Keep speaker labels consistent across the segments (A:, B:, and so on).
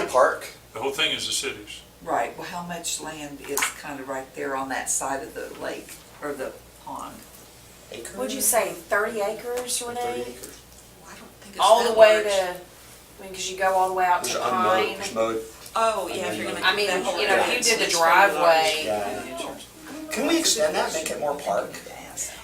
A: park?
B: The whole thing is the city's.
C: Right, well, how much land is kind of right there on that side of the lake or the pond?
A: Acre?
D: Would you say thirty acres,
A: Or 30
D: Renee?
A: acres?
C: I don't think it's
D: All
C: that
D: the way
C: large.
D: to, I mean, cause you go all the way out
A: There's
D: to
A: unmowed,
D: Pine.
A: there's mowed.
C: Oh, yeah, if you're gonna.
D: I mean,
C: that whole
D: you know, if you
C: area,
D: did the
C: it's pretty large.
D: driveway-
A: Yeah. Can we extend that, make it more park?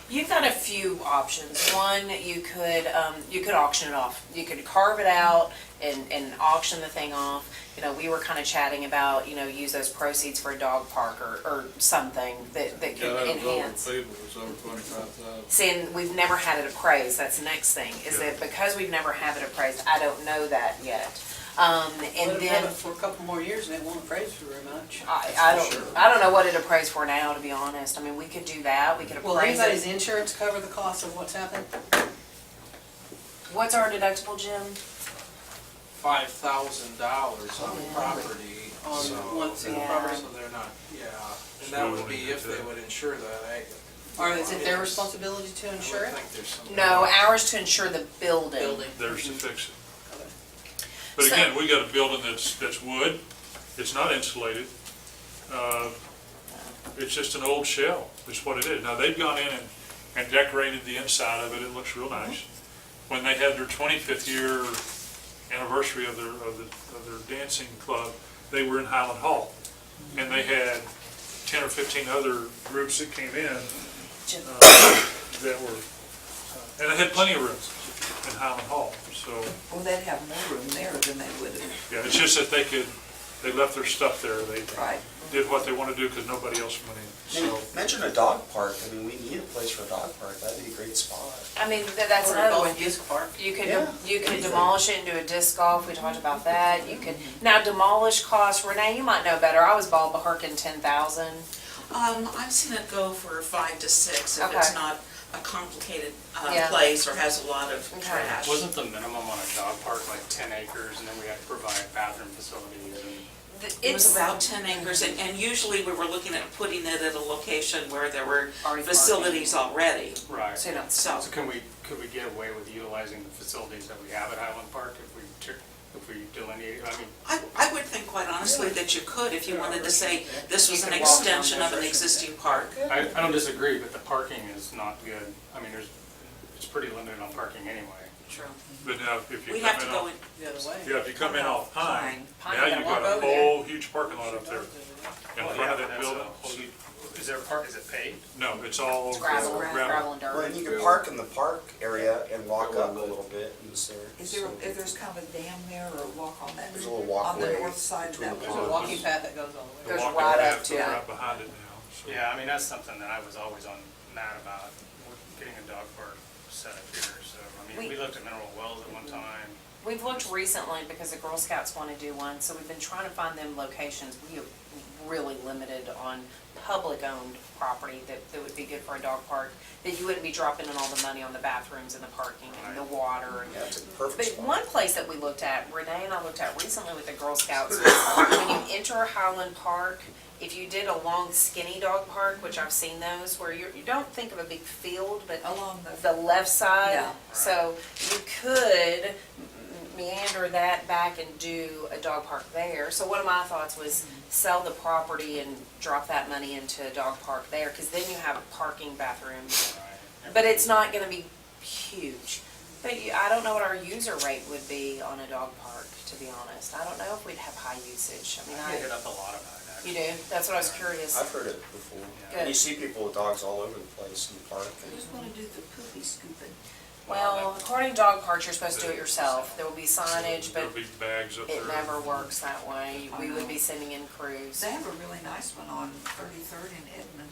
D: You've got a few options. One, you could, um, you could auction it off. You could carve it out and, and auction the thing off. You know, we were kind of chatting about, you know, use those proceeds for a dog park or, or something that, that
E: Yeah,
D: could
E: that was over
D: enhance.
E: People, it was over twenty-five thousand.
D: Seeing, we've never had it appraised, that's the next thing, is that because we've never had it appraised, I don't know that yet. Um, and
F: Let them have
D: then,
F: it for a couple more years and it won't appraise for very much.
D: I, I don't, I don't know what it appraised for now, to be honest. I mean, we could do that, we could
F: Will
D: appraise
F: anybody's
D: it.
F: insurance cover the cost of what's happened?
D: What's our deductible, Jim?
G: five thousand dollars on the
D: Oh, Yeah.
G: property,
F: On
G: so.
F: one single
D: Yeah.
F: property?
G: So they're not, yeah,
B: It's
G: and that
B: not
G: would
B: really
G: be if they
B: good.
G: would insure that, I.
F: Or is it their
G: Yes.
F: responsibility to insure
G: I
F: it?
G: would think there's some.
D: No, ours to insure the building.
F: Building.
B: There's to fix it. But
D: So-
B: again, we got a building that's, that's wood, it's not insulated. Uh, It's just an old shell, is what it is. Now, they've gone in and, and decorated the inside of it, it looks real nice. When they had their twenty-fifth year anniversary of their, of the, of their dancing club, they were in Highland Hall. And they had ten or fifteen other groups that came in,
D: Jim.
B: uh, that were, uh, and they had plenty of rooms in Highland Hall, so.
C: Well, they'd have more room there than they would have,
B: Yeah, it's just that they could, they left their stuff there, they
C: right?
B: did what they wanted to do because nobody else went in, so.
A: Mention a dog park, I mean, we need a place for a dog park, that'd be a great spot.
D: I mean, th- that's
F: Or a
D: another
F: golf
D: one.
H: Oh.
F: disc park?
D: You could,
A: Yeah.
D: you could demolish it and do a disc golf, we talked about that, you could, now demolish costs, Renee, you might know better, I was ball beherking ten thousand.
H: Um, I've seen it go for five to six if
D: Okay.
H: it's not a complicated,
D: Yeah.
H: uh, place or has a lot of
D: Okay.
H: trash.
G: Wasn't the minimum on a dog park like ten acres, and then we had to provide bathroom facilities and?
H: It was about ten acres and, and usually we were looking at putting it at a location where there were
D: Already parked.
H: facilities already,
G: Right.
D: So you don't,
H: so.
G: So can we, could we get away with utilizing the facilities that we have at Highland Park if we, took- if we delineate, I mean,
H: I, I would think quite honestly that you could if you wanted to say this was
F: You
H: an
F: could walk down
H: extension of
F: there.
H: an existing park.
G: I, I don't disagree, but the parking is not good. I mean, there's, it's pretty limited on parking anyway.
H: True.
B: But now, if you
H: We'd
B: come
H: have to
B: in
H: go
B: off,
H: in,
F: The other way.
B: yeah, if you come in off Pine,
D: Pine,
B: now
D: you gotta
B: you've got
F: walk
B: a
F: over there.
B: whole huge parking lot up there in front of that building.
G: Is there a park, is it paved?
B: No, it's all
D: gravel,
B: gravel.
D: gravel and
A: Well, and you
D: dirt.
A: could park in the park area and walk up a little bit and stare.
C: Is there, if there's kind of a dam there or a walk on that?
A: There's a little
C: On
A: walkway
C: the north side of
A: between
C: that
A: the
F: There's
C: pond?
F: a walking path that goes all the
B: The
F: way.
D: Goes
B: walking
D: right up
B: path
D: to
B: is
D: it.
B: Right behind it now, so.
G: Yeah, I mean, that's something that I was always on mad about, we're getting a dog park set up here, so, I mean,
D: We- Mm-hmm.
G: we looked at Mineral Wells at one time.
D: We've looked recently because the Girl Scouts wanna do one, so we've been trying to find them locations, we are really limited on public-owned property that, that would be good for a dog park, that you wouldn't be dropping in all the money on the bathrooms and the parking and the water and
A: Yeah, it's a perfect
D: But
A: spot.
D: one place that we looked at, Renee and I looked at recently with the Girl Scouts, was when you enter Highland Park, if you did a long skinny dog park, which I've seen those, where you're, you don't think of a big field, but
C: Along
D: the left side.
C: Yeah.
D: So you could meander that back and do a dog park there. So one of my thoughts was sell the property and drop that money into a dog park there, because then you have parking bathrooms. But it's not gonna be huge. But you, I don't know what our user rate would be on a dog park, to be honest. I don't know if we'd have high usage. I mean,
G: I hit
D: I,
G: up a lot about it, actually.
D: you do, that's what I was curious.
A: I've heard it before.
G: Yeah.
A: And you see people with dogs all over the place in the park.
C: Who's gonna do the poopy scooping?
D: Well, according to dog parks, you're supposed to do it yourself. There will be signage, but
B: There'll be bags up there.
D: it never works that way. We would be sending in crews.
C: They have a really nice one on Thirty-third in Edmond.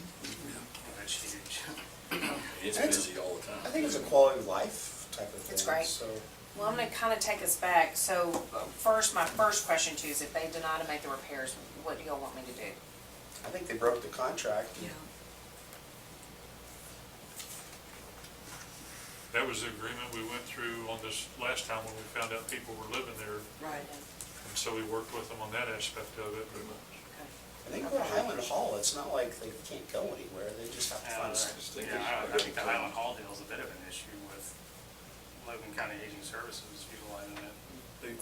G: That's huge.
E: It's busy all the time.
A: I think it's a quality of life type of thing.
D: It's great.
A: So,
D: Well, I'm gonna kinda take us back. So uh, first, my first question to you is if they deny to make the repairs, what do y'all want me to do?
A: I think they broke the contract.
C: Yeah.
B: That was the agreement we went through on this last time when we found out people were living there,
C: Right.
B: and so we worked with them on that aspect of it, but
A: I think with Highland Hall, it's not like they can't go anywhere, they just have to
G: uh,
A: find
G: Yeah,
A: a
E: just think
G: I
E: it's-
G: I think the Highland Hall deal is a bit of an issue with Logan County Aging Services utilizing it.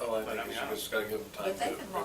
E: Well, I think it's just gotta give them
C: But
E: time to
C: they can roll